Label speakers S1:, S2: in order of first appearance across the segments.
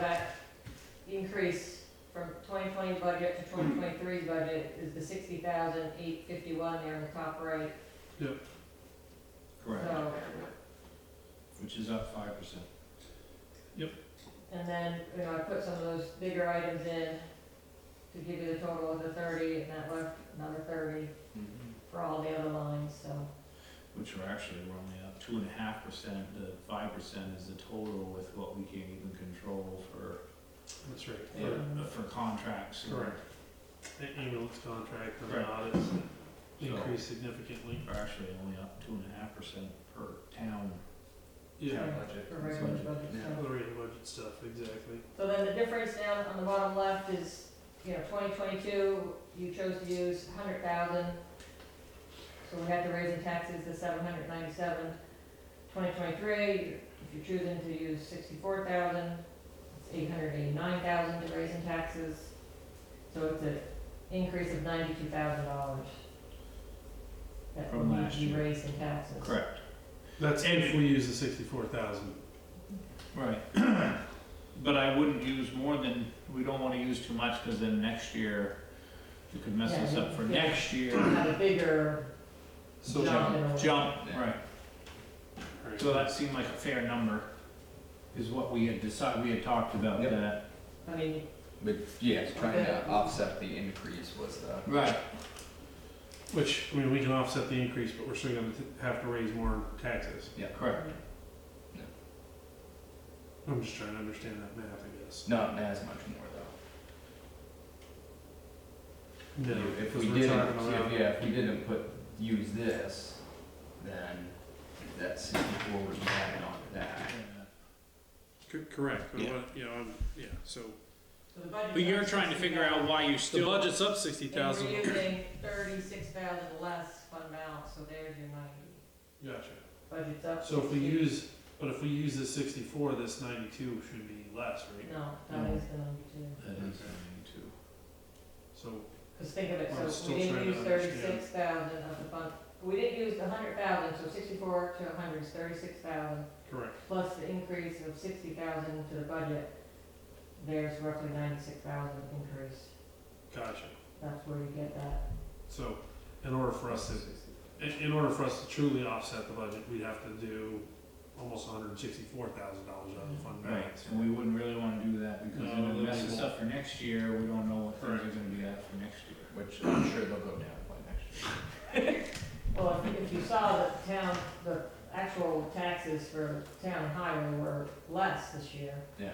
S1: that increase from twenty twenty budget to twenty twenty-three budget is the sixty thousand eight fifty-one there in the top right,
S2: Correct,
S1: so.
S2: which is up five percent.
S1: And then, you know, I put some of those bigger items in to give you the total of the thirty, and that left another thirty for all the other lines, so.
S2: Which are actually, we're only up two and a half percent, the five percent is the total with what we can't even control for,
S3: That's right.
S1: Yeah.
S2: uh, for contracts. and-
S3: Correct. The ambulance contract and
S2: Right.
S3: the audits
S2: So,
S3: increased significantly.
S2: we're actually only up two and a half percent per town,
S3: Yeah,
S2: town budget.
S1: For regular
S2: budget.
S1: budget
S2: Yeah.
S1: stuff.
S3: the rate of budget stuff, exactly.
S1: So then the difference down on the bottom left is, you know, twenty twenty-two, you chose to use hundred thousand. So we had to raise in taxes to seven hundred ninety-seven. Twenty twenty-three, if you're choosing to use sixty-four thousand, it's eight hundred eighty-nine thousand to raise in taxes. So it's an increase of ninety-two thousand dollars. That
S2: From
S1: we
S2: last
S1: we
S2: year.
S1: raised in taxes.
S2: Correct,
S3: That's
S2: And-
S3: if we use the sixty-four thousand.
S2: right. But I wouldn't use more than, we don't wanna use too much, cause then next year, you could mess
S1: Yeah,
S2: us up for
S1: yeah.
S2: next year.
S1: Have a bigger
S3: So-
S1: jump in a way.
S2: Jump, right. So that seemed like a fair number, is what we had decided, we had talked about
S4: Yep.
S2: that.
S1: I mean,
S4: But yeah, trying to offset the increase was the,
S2: Right.
S3: Which, I mean, we can offset the increase, but we're still gonna t- have to raise more taxes.
S2: Correct.
S3: I'm just trying to understand that math, I guess.
S4: not as much more though.
S3: No,
S4: If
S3: because
S4: we
S3: we're
S4: didn't,
S3: talking
S4: if,
S3: about,
S4: yeah, if we didn't put, use this, then that sixty-four would be added on to that.
S3: C- correct, but
S2: Yeah.
S3: what, you know, I'm, yeah, so.
S1: So the budget.
S3: But you're trying to figure out
S2: why you
S3: The budget's up sixty
S1: And
S3: thousand.
S1: we're using thirty-six thousand less fund balance, so there's your ninety.
S3: Gotcha.
S1: Budget's up.
S3: So if we
S1: 60.
S3: use, but if we use the sixty-four, this ninety-two should be less, right?
S1: No, that is the number two.
S2: That is ninety-two.
S3: So,
S1: Cause think of it,
S3: I'm
S1: so
S3: still
S1: we didn't
S3: trying to
S1: use
S3: understand.
S1: thirty-six thousand of the fund, we didn't use the hundred thousand, so sixty-four to a hundred is thirty-six thousand,
S3: correct.
S1: plus the increase of sixty thousand to the budget. There's roughly ninety-six thousand increase.
S3: Gotcha.
S1: That's where you get that.
S3: So, in order for us to, in, in order for us to truly offset the budget, we'd have to do almost hundred and sixty-four thousand dollars out of the fund
S2: Mm-hmm. Right,
S3: balance.
S2: and we wouldn't really wanna do that because
S3: No,
S2: then it
S3: that
S2: messes
S3: won't.
S2: up for next year, we don't know what things are
S3: Correct.
S2: gonna be at for next year.
S4: Which I'm sure they'll go down by next year.
S1: Well, if, if you saw that town, the actual taxes for town and highway were less this year.
S4: Yeah.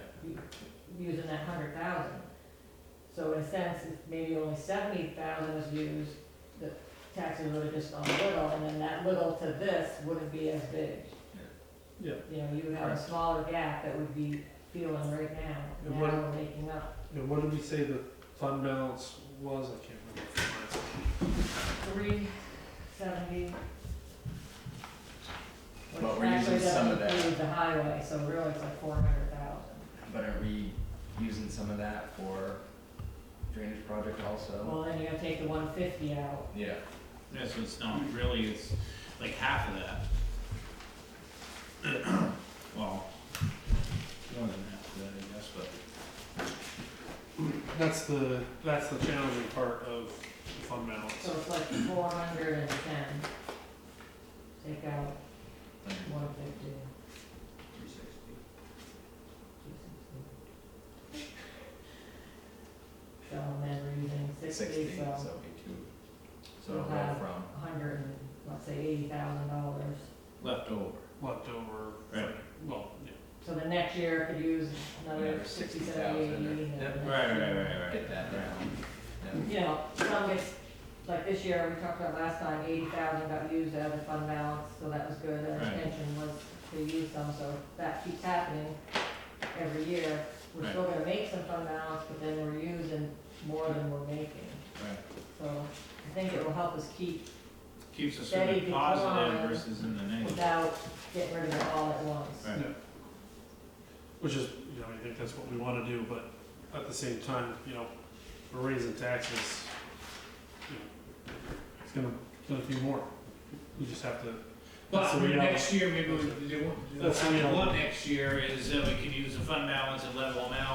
S1: using that hundred thousand. So in a sense, if maybe only seventy thousand was used, the taxes would have just gone little, and then that little to this wouldn't be as big.
S3: Yeah,
S1: You know, you would have a
S2: Correct.
S1: smaller gap that would be feeling right now,
S3: And
S1: now
S3: what-
S1: we're making up.
S3: and what did we say the fund balance was? I can't remember.
S1: Three seventy.
S4: But we're using some of that.
S1: Which actually doesn't include the highway, so really it's like four hundred thousand.
S4: But are we using some of that for drainage project also?
S1: Well, then you're gonna take the one fifty out,
S4: Yeah,
S2: Yeah, so it's not really, it's like half of that. Well, more than half of that, I guess, but.
S3: That's the, that's the challenging part of the fund balance.
S1: so it's like four hundred and ten. Take out
S4: like
S1: one fifty.
S4: three sixty.
S1: So then we're using sixty,
S4: Sixty,
S1: so
S4: so it'd be two. So
S1: We'll
S4: it'll go
S1: have-
S4: from,
S1: a hundred and, let's say eighty thousand dollars.
S2: Left over.
S3: Left over,
S2: Right.
S3: well, yeah.
S1: So the next year I could use another
S4: Another
S1: sixty,
S4: 60,000
S1: seventy, eighty.
S4: or-
S1: and
S4: Yep.
S1: then-
S2: Right, right, right, right.
S4: get that down. Yeah.
S1: You know, some gets, like this year, we talked about last time, eighty thousand got used out of the fund balance, so that was good. The
S2: Right.
S1: intention was to use some, so if that keeps happening every year. We're still gonna make some fund balance, but then we're using more than we're making.
S2: Right.
S1: So I think it will help us keep
S2: Keeps us
S1: Steady
S2: in the positive
S1: decline.
S2: versus in the negative.
S1: without getting rid of it all at once.
S2: Right.
S3: Which is, you know, I think that's what we wanna do, but at the same time, you know, we're raising taxes, you know, it's gonna, gonna be more. We just have to,
S2: Well,
S3: That's
S2: I
S3: the
S2: mean,
S3: reality.
S2: next year, maybe we, they won't,
S3: That's the
S2: what
S3: reality.
S2: next year is that we can use the fund balance at level amount